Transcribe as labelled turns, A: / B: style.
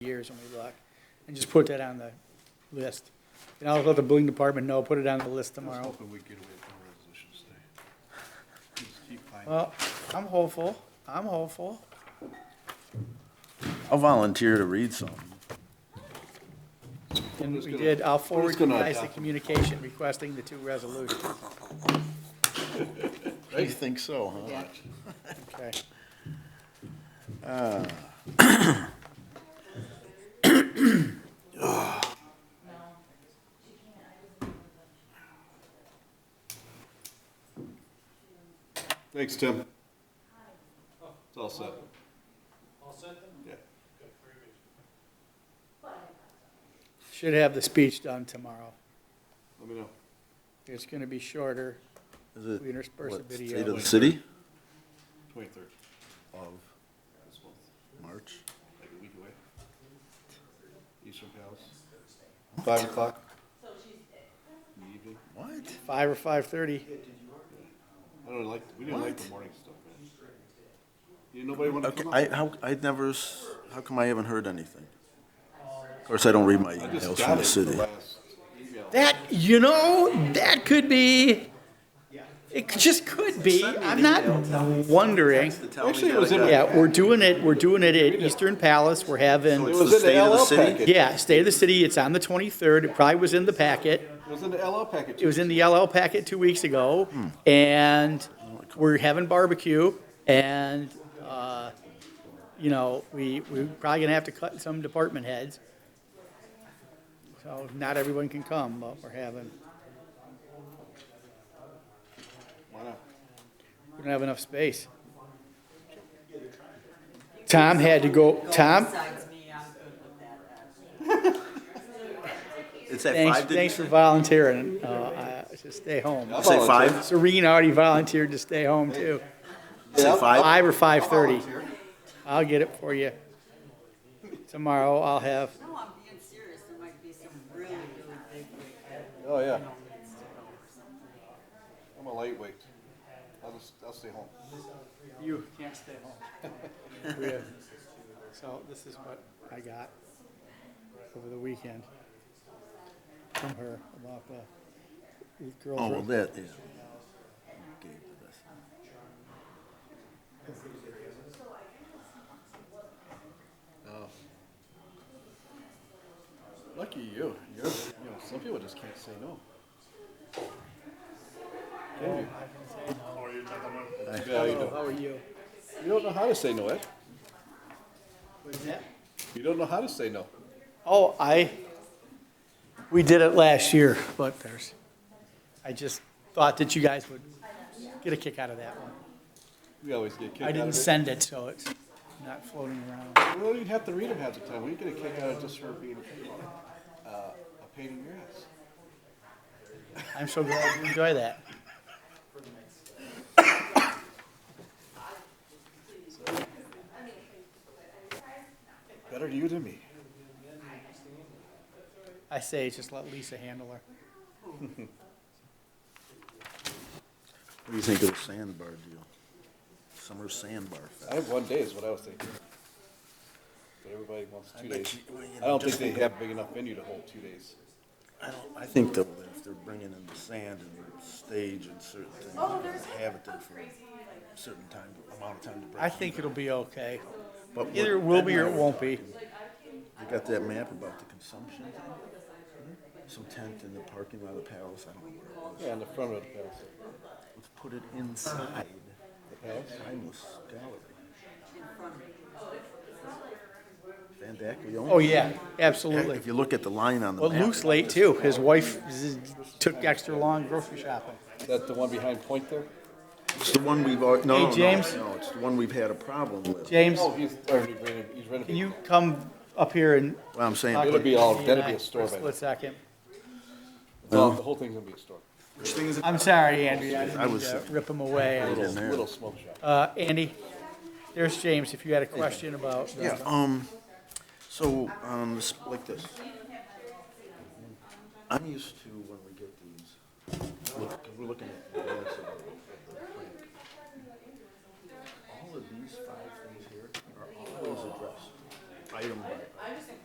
A: recently, Block, and just put that on the list. And I'll let the building department know, put it on the list
B: I was
A: tomorrow.
B: hoping we'd get away from resolutions today. Just keep finding.
A: Well, I'm hopeful, I'm hopeful.
C: I'll volunteer to read something.
A: And
B: just
A: we
B: gonna-
A: did, I'll forward you
B: gonna
A: guys the
B: adopt them.
A: communication requesting the two resolutions.
C: You think so, huh?
A: Okay.
B: Thanks, Tim. It's all set. All set then?
A: Should have the speech done tomorrow.
B: Yeah, let me know.
A: It's gonna be shorter.
C: Is it,
A: We intersperse a
C: what, state
A: video.
C: of the city?
B: Twenty-third
C: Of
B: this month,
C: March.
B: like a week away. Eastern Palace. Five o'clock? In the evening.
C: What?
A: Five or five-thirty.
B: I don't like, we didn't like the
C: What?
B: morning stuff, man. You, nobody wanted to
C: Okay,
B: come up?
C: I, how, I'd never, s- how come I haven't heard anything? Of course, I don't read my
B: I just
C: emails
B: got
C: from
B: it
C: the
B: the
C: city.
B: last email.
A: That, you know, that could be, it just could be. I'm not wondering.
B: Actually, it was in, it
A: Yeah, we're doing it, we're doing it at Eastern Palace. We're having,
C: It's
B: was
C: the
B: in
C: state
B: the
C: of
B: LL
C: the city?
B: package.
A: yeah, State of the City. It's on the twenty-third. It probably was in the packet.
B: It was in the LL package.
A: It was in the LL packet two weeks ago,
B: Hmm.
A: and we're having barbecue, and, uh, you know, we, we're probably gonna have to cut some department heads. So not everyone can come, but we're having,
B: Why not?
A: we don't have enough space. Tom had to go, Tom,
D: Besides me, I'm good with that.
C: It's at
A: thanks,
C: five, did you
A: thanks for
C: say?
A: volunteering, uh, I- to stay home.
C: Say five?
A: Serene already volunteered to stay home too,
C: Say five?
A: five or five-thirty. I'll get it for you. Tomorrow I'll have,
D: No, I'm being serious. There might be some really, really big weekend
B: Oh, yeah.
D: moments to go or something.
B: I'm a lightweight. I'll just, I'll stay home.
A: you can't stay home. We have- So this is what I got over the weekend from her about the girls.
C: Oh, well,
A: room.
C: that, yeah. Okay, that's-
B: Lucky you. You're, you know, some people just can't say no. Can you? Yeah, you don't.
A: How are you?
B: You don't know how to say no, Ed.
A: What is that?
B: You don't know how to say no.
A: Oh, I, we did it last year, but there's, I just thought that you guys would get a kick out of that one.
B: We always get kicked
A: I
B: out
A: didn't
B: of it.
A: send it, so it's not floating around.
B: we don't even have to read them half the time. We get a kick out of just her being uh, a pain in your ass.
A: I'm so glad you enjoy that.
B: Better you than me.
A: I say, just let Lisa handle her.
C: What do you think of the sandbar deal? Summer sandbar
B: I
C: fest.
B: have one day is what I was thinking. But everybody wants two
C: bet
B: days.
C: you- well, you
B: I
C: know,
B: don't think
C: just
B: they
C: think-
B: have big enough venue to hold two days.
C: I don't, I think though, that if they're bringing in the sand and stage and certain things, they have it there for a certain time, amount of time to break.
A: I think it'll be okay.
C: But what-
A: Either it will be or it won't be.
C: You got that map about the consumption? Hmm? Some tent in the parking lot of the palace, I don't know where it was.
B: Yeah, in the front of the palace.
C: Let's put it inside
B: The palace?
C: the timeless gallery. Van Dyke, we own.
A: Oh, yeah, absolutely.
C: If you look at the line on the
A: Well,
C: map.
A: Luke's late too. His wife z- took extra long grocery shopping.
B: Is that the one behind Point there?
C: It's the one we've, al- no, no, no,
A: James?
C: no, it's the one we've had a problem with.
A: James,
B: Oh, he's already renovated. He's
A: can
B: renovated.
A: you come up here and
C: What I'm saying,
A: talk
B: It'll
A: to
B: be all-
A: Jamie and
B: that'll be
A: I
B: a
A: for
B: store
A: a
B: by
A: Split second.
B: No, the whole thing's gonna be a store.
A: I'm sorry, Andy. I
C: I
A: didn't mean
C: was-
A: to rip him away.
B: Little,
C: in there.
B: little smoke shop.
A: Uh, Andy, there's James, if you had a question about. uh, the-
C: Yeah, um, so, um, this- like this. I'm used to when we get these, look, 'cause we're looking at. the balance of the plan. All of these five things here are always addressed, item by item.